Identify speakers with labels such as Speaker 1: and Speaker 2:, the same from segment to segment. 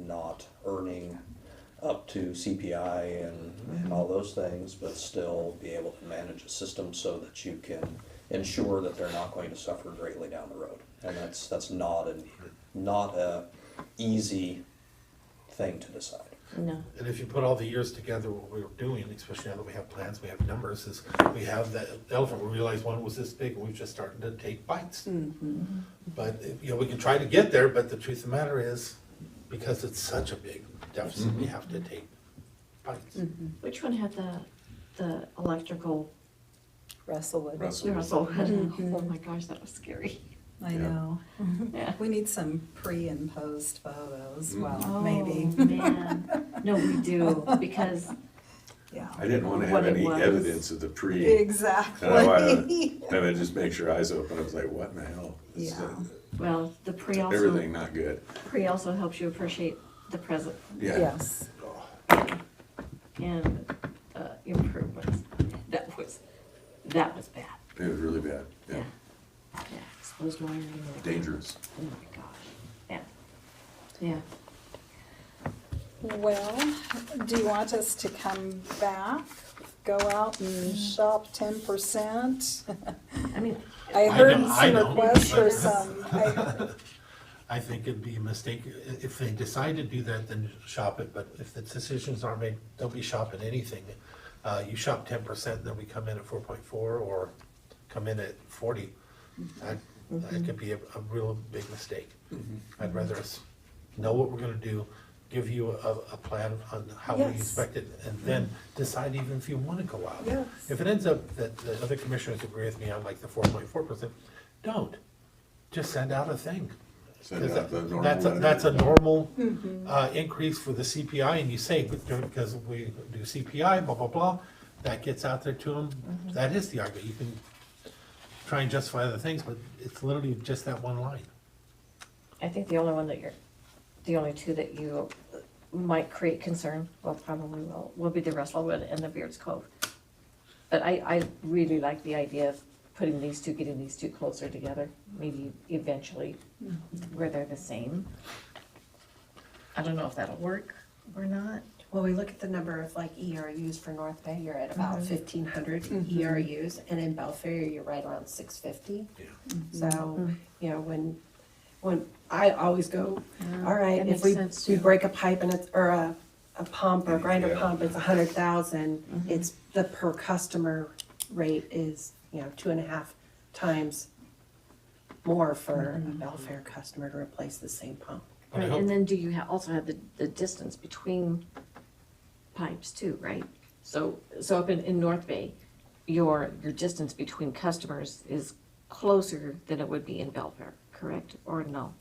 Speaker 1: not earning up to CPI and, and all those things, but still be able to manage a system so that you can ensure that they're not going to suffer greatly down the road. And that's, that's not an, not a easy thing to decide.
Speaker 2: No.
Speaker 3: And if you put all the years together, what we're doing, especially now that we have plans, we have numbers, is we have that elephant, we realize one was this big, and we've just started to take bites. But, you know, we can try to get there, but the truth of the matter is, because it's such a big deficit, we have to take bites.
Speaker 4: Which one had the, the electrical
Speaker 5: Russellwood.
Speaker 6: Russell.
Speaker 4: Russell? Oh my gosh, that was scary.
Speaker 5: I
Speaker 6: Yeah.
Speaker 5: know.
Speaker 4: Yeah.
Speaker 5: We need some pre and post photos,
Speaker 6: Mm-hmm.
Speaker 5: well,
Speaker 4: Oh,
Speaker 5: maybe,
Speaker 4: man. No, we do, because,
Speaker 5: yeah.
Speaker 6: I didn't want to
Speaker 4: What
Speaker 6: have
Speaker 4: it
Speaker 6: any
Speaker 4: was.
Speaker 6: evidence of the pre,
Speaker 5: Exactly.
Speaker 6: and I just make sure eyes open, I was like, what in the hell? This is, uh,
Speaker 5: Yeah.
Speaker 4: well, the pre
Speaker 6: Everything
Speaker 4: also,
Speaker 6: not good,
Speaker 4: pre also helps you appreciate the present
Speaker 6: yeah.
Speaker 5: Yes,
Speaker 4: and uh, improvements. That was, that was bad.
Speaker 6: It was really bad, yeah,
Speaker 4: Yeah, exposed wiring. and-
Speaker 6: dangerous.
Speaker 4: Oh my gosh, yeah, yeah.
Speaker 5: well, do you want us to come back, go out and shop ten percent?
Speaker 4: I mean,
Speaker 5: I
Speaker 3: I
Speaker 5: heard
Speaker 3: know- I
Speaker 5: some
Speaker 3: know.
Speaker 5: requests for some, I-
Speaker 3: I think it'd be a mistake, I- if they decide to do that, then shop it, but if the decisions aren't made, don't be shopping anything. Uh, you shop ten percent, then we come in at four point four, or come in at forty. That, that could be a, a real big mistake.
Speaker 5: Mm-hmm.
Speaker 3: I'd rather us know what we're gonna do, give you a, a plan on how we
Speaker 5: Yes.
Speaker 3: expect it, and then decide even if you wanna go out.
Speaker 5: Yes.
Speaker 3: If it ends up that the other commissioners agree with me on like the four point four percent, don't. Just send out a thing.
Speaker 6: Send
Speaker 3: Because
Speaker 6: out uh, the normal
Speaker 3: That's, a-
Speaker 6: letter.
Speaker 3: that's a normal,
Speaker 2: Mm-hmm.
Speaker 3: uh, increase for the CPI, and you say, because we do CPI, blah, blah, blah, that gets out there to them,
Speaker 2: Mm-hmm.
Speaker 3: that is the argument, you can try and justify other things, but it's literally just that one line.
Speaker 2: I think the only one that you're, the only two that you might create concern, well, probably will, will be the Russellwood and the Beards Cove. But I, I really like the idea of putting these two, getting these two closer together, maybe eventually where they're the same. I don't know if that'll work or not.
Speaker 7: Well, we look at the number of like ERUs for North Bay, you're at
Speaker 2: Mm-hmm.
Speaker 7: about fifteen hundred ERUs, and in Belfair, you're right around six fifty.
Speaker 3: Yeah.
Speaker 2: Mm-hmm.
Speaker 7: So, you know, when, when, I always go, all right,
Speaker 2: that makes
Speaker 7: if we,
Speaker 2: sense,
Speaker 7: we
Speaker 2: yeah.
Speaker 7: break a pipe and it's, or a, a pump or a grinder
Speaker 6: Yeah.
Speaker 7: pump, it's a hundred thousand,
Speaker 2: Mm-hmm.
Speaker 7: it's, the per customer rate is, you know, two and a half times more for
Speaker 2: Mm-hmm.
Speaker 7: a Belfair customer to replace the same pump.
Speaker 3: And I
Speaker 2: Right,
Speaker 3: hope-
Speaker 2: and then do you ha- also have the, the distance between pipes too, right? So, so up in, in North Bay, your, your distance between customers is closer than it would be in Belfair, correct, or no?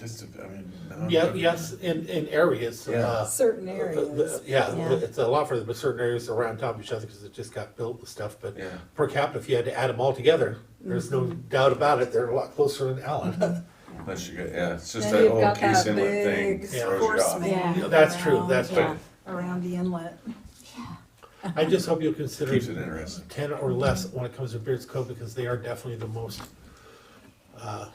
Speaker 6: Just, I mean. no.
Speaker 3: Yeah, yes, in, in areas, uh,
Speaker 5: certain
Speaker 3: the- the-
Speaker 5: areas,
Speaker 3: yeah,
Speaker 2: Yeah.
Speaker 3: it's a lot further, but certain areas are around top of each other, because it just got built and stuff, but
Speaker 6: Yeah.
Speaker 3: per capita, if you had to add them all together, there's no
Speaker 2: Mm-hmm.
Speaker 3: doubt about it, they're a lot closer than Allen.
Speaker 6: Unless you, got- yeah, it's just
Speaker 5: Then
Speaker 6: that
Speaker 5: you've
Speaker 6: whole
Speaker 5: got
Speaker 6: case
Speaker 5: that
Speaker 6: inlet thing
Speaker 5: big
Speaker 6: throws you
Speaker 5: force
Speaker 6: off.
Speaker 5: main.
Speaker 2: Yeah.
Speaker 3: You know, That's true, that's
Speaker 2: Yeah.
Speaker 3: true.
Speaker 5: around the inlet.
Speaker 3: I just hope you'll consider.
Speaker 6: Keeps it interesting,
Speaker 3: ten or less when it comes to Beards Cove, because they are definitely the most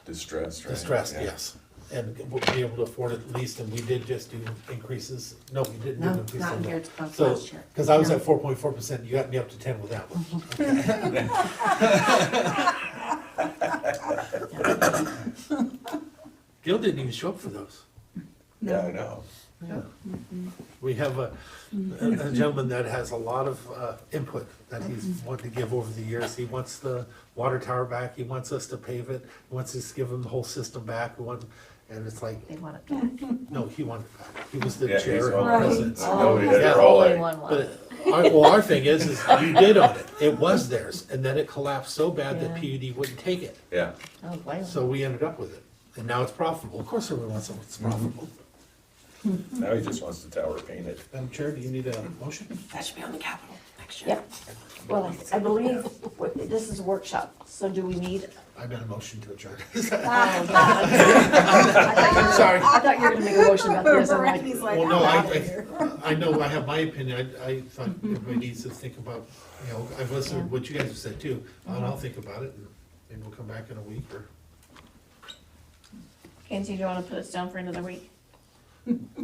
Speaker 6: distressed, right?
Speaker 3: distressed,
Speaker 6: Yeah.
Speaker 3: yes. And we'll be able to afford at least, and we did just do increases, no, we didn't do
Speaker 7: No,
Speaker 3: increases.
Speaker 7: not in Beards Cove
Speaker 3: So-
Speaker 7: last year.
Speaker 3: Cause I was
Speaker 7: No.
Speaker 3: at four point four percent, you got me up to ten with that one. Gil didn't even show up for those.
Speaker 6: Yeah, I know.
Speaker 3: Mm-hmm. We have a, a gentleman that has a lot of, uh, input that he's wanted to give over the years. He wants the water tower back, he wants us to pave it, he wants us to give him the whole system back, we want, and it's like,
Speaker 2: They want it back.
Speaker 3: no, he wanted it back. He was the
Speaker 6: Yeah, he's
Speaker 3: chair
Speaker 6: all-
Speaker 3: and
Speaker 5: Right.
Speaker 3: president.
Speaker 6: Nobody did,
Speaker 3: Yeah.
Speaker 6: they're all
Speaker 2: Only
Speaker 6: like-
Speaker 2: one was.
Speaker 3: But, our- well, our thing is, is you did own it, it was theirs, and then it collapsed so bad that PUD wouldn't take it.
Speaker 6: Yeah,
Speaker 2: Oh, wow.
Speaker 3: So we ended up with it, and now it's profitable. Of course everyone wants something that's profitable.
Speaker 6: now he just wants the tower painted.
Speaker 3: Madam Chair, do you need a motion?
Speaker 7: That should be on the capital next year.
Speaker 2: Yep. Well, I- I believe what- this is a workshop, so do we need,
Speaker 3: I made a motion to adjourn.
Speaker 2: I
Speaker 3: Sorry.
Speaker 2: thought you were gonna make a motion about this, I'm like,
Speaker 5: Brandy's like,
Speaker 3: Well,
Speaker 5: I'm
Speaker 3: no,
Speaker 5: out of here.
Speaker 3: I, I, I know, I have my opinion, I, I thought everybody needs to think about, you know, I've listened to what you guys have said too, and I'll think about it, and maybe we'll come back in a week or.
Speaker 2: Kenzie, do you wanna put us down for another week?